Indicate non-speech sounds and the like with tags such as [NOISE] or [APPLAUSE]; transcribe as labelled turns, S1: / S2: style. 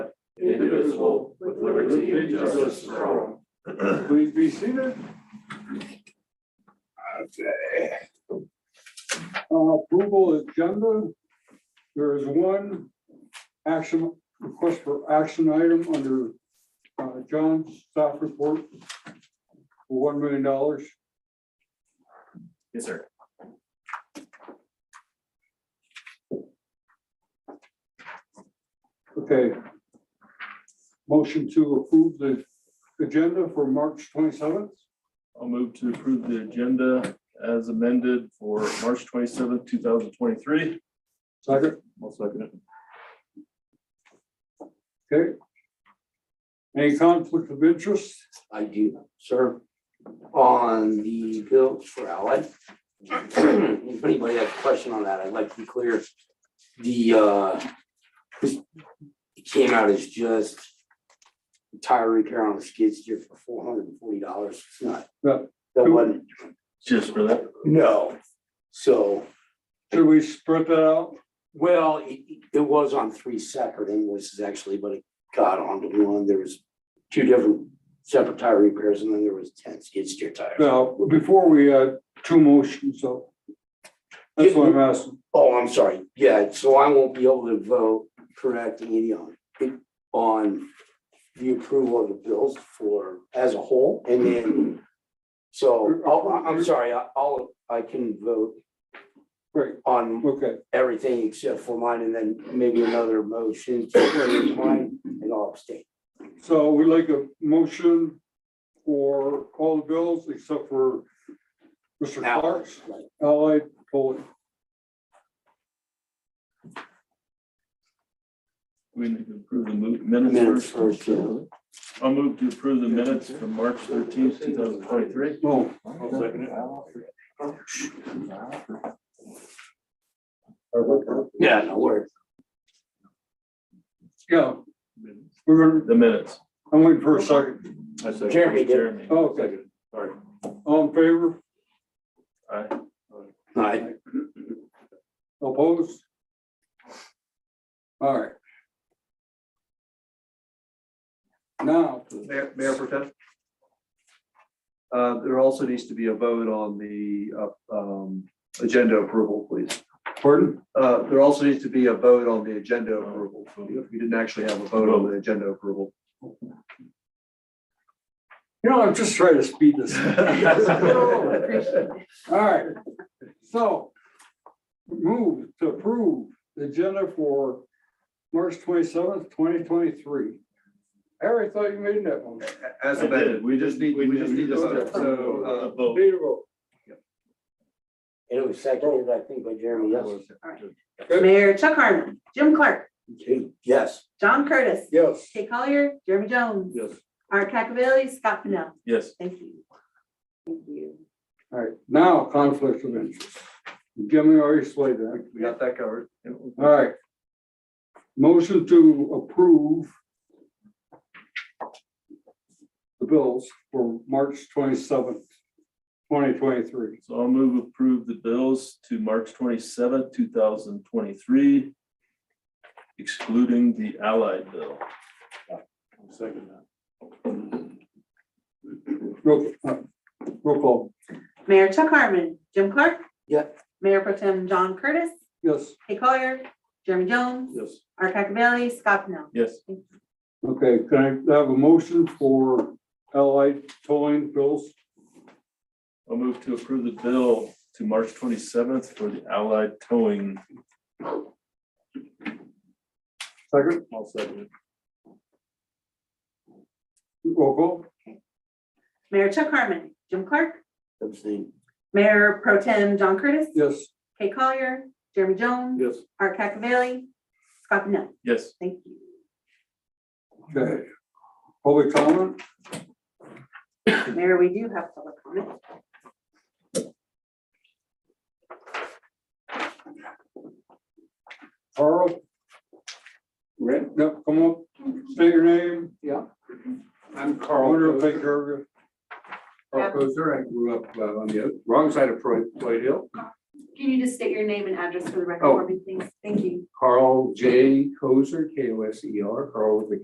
S1: indivisible, with liberty and justice for all.
S2: [CLEARS THROAT] Please be seated. Okay. Uh, Approval agenda. There is one action, request for action item under uh, John's staff report. for One million dollars.
S1: Yes, sir.
S2: Okay. Motion to approve the agenda for March twenty-seventh.
S3: I'll move to approve the agenda as amended for March twenty-seventh, two thousand twenty-three.
S2: Second,
S3: I'll second it.
S2: okay. Any conflict of interest?
S4: I do, sir, on the bills for Allied. If anybody has a question on that, I'd like to be clear. The, uh, this came out as just tire repair on a skid steer for four hundred and forty dollars. It's not,
S2: No.
S4: that wasn't,
S3: Just for that.
S4: no. So,
S2: Should we spread that out?
S4: well, it, it was on three separate invoices actually, but it got onto one. There was two different separate tire repairs and then there was ten skid steer tires.
S2: Now, before we had two motions, so. That's what I'm asking.
S4: Oh, I'm sorry. Yeah, so I won't be able to vote correcting any on, on the approval of the bills for, as a whole, and then, so, I'll- I'm sorry, I- I'll, I can vote
S2: Great,
S4: on
S2: okay,
S4: everything except for mine, and then maybe another motion to approve mine, and I'll abstain.
S2: so we'd like a motion for all the bills except for Mr. Clark's
S4: Right.
S2: allied tolling.
S3: We need to approve the mo-
S4: Minutes
S3: minutes first.
S4: first, yeah.
S3: I'll move to approve the minutes from March thirteenth, two thousand twenty-three.
S2: No,
S1: I'll second it.
S4: Yeah, no worries.
S2: yeah, we're gonna,
S3: The minutes.
S2: I'm waiting for a second.
S4: Jeremy did.
S3: Jeremy.
S2: Okay,
S3: [LAUGHS]
S4: [LAUGHS]
S3: Sorry.
S2: all in favor,
S3: Aye.
S4: I,
S2: opposed? All right. Now,
S5: Mayor, Mayor Protem? Uh, there also needs to be a vote on the, uh, um, agenda approval, please.
S2: pardon,
S5: Uh, there also needs to be a vote on the agenda approval. You didn't actually have a vote on the agenda approval.
S2: you know, I'm just trying to speed
S3: [LAUGHS]
S2: this. [LAUGHS]
S5: I'll
S2: All right, so move to approve the agenda for March twenty-seventh, twenty twenty-three. Harry, I thought you made that one.
S5: As
S3: I did.
S5: amended, we just need, we just need to vote, so,
S3: A
S5: uh,
S3: vote.
S2: Need a vote.
S4: it was seconded, I think, by Jeremy,
S5: uh,
S4: yes.
S6: Mayor Chuck Harmon, Jim Clark,
S4: Okay, Yes.
S6: John Curtis,
S2: Yes.
S6: Kay Collier, Jeremy Jones.
S3: Yes.
S6: Art Cacavelli, Scott Pennell.
S3: Yes.
S6: Thank you. Thank you.
S2: All right, now conflict of interest. Jimmy already slayed that.
S5: we got that covered.
S2: All right. Motion to approve the bills for March twenty-seventh, twenty twenty-three.
S3: So I'll move approve the bills to March twenty-seventh, two thousand twenty-three, excluding the Allied bill.
S1: Second that.
S2: Roll, uh, roll call,
S6: Mayor Chuck Harmon, Jim Clark.
S4: Yeah.
S6: Mayor Pro Tem John Curtis,
S2: yes.
S6: Kay Collier, Jeremy Jones,
S3: Yes.
S6: Art Cacavelli, Scott Pennell.
S3: Yes.
S2: Okay, can I have a motion for Allied towing bills?
S3: I'll move to approve the bill to March twenty-seventh for the Allied Towing.
S2: Second,
S3: I'll second it.
S2: roll call?
S6: Mayor Chuck Harmon, Jim Clark.
S4: Abstain.
S6: Mayor Pro Tem John Curtis,
S2: Yes.
S6: Kay Collier, Jeremy Jones,
S2: Yes.
S6: Art Cacavelli, Scott Pennell.
S3: Yes.
S6: Thank you.
S2: Okay. Public comment?
S6: Mayor, we do have public comment.
S2: Carl?
S1: Rick?
S2: Yep, come up, state your name.
S7: I'm Carl.
S2: Carl,
S7: Kozer.
S2: take care of you.
S7: Carl Kozer. I grew up uh, on the wrong side of Floyd Floyd Hill.
S8: Can you just state your name and address for the record
S7: Oh.
S8: for me, please? Thank you.
S7: Carl J. Kozer, K O S E R, Carl with a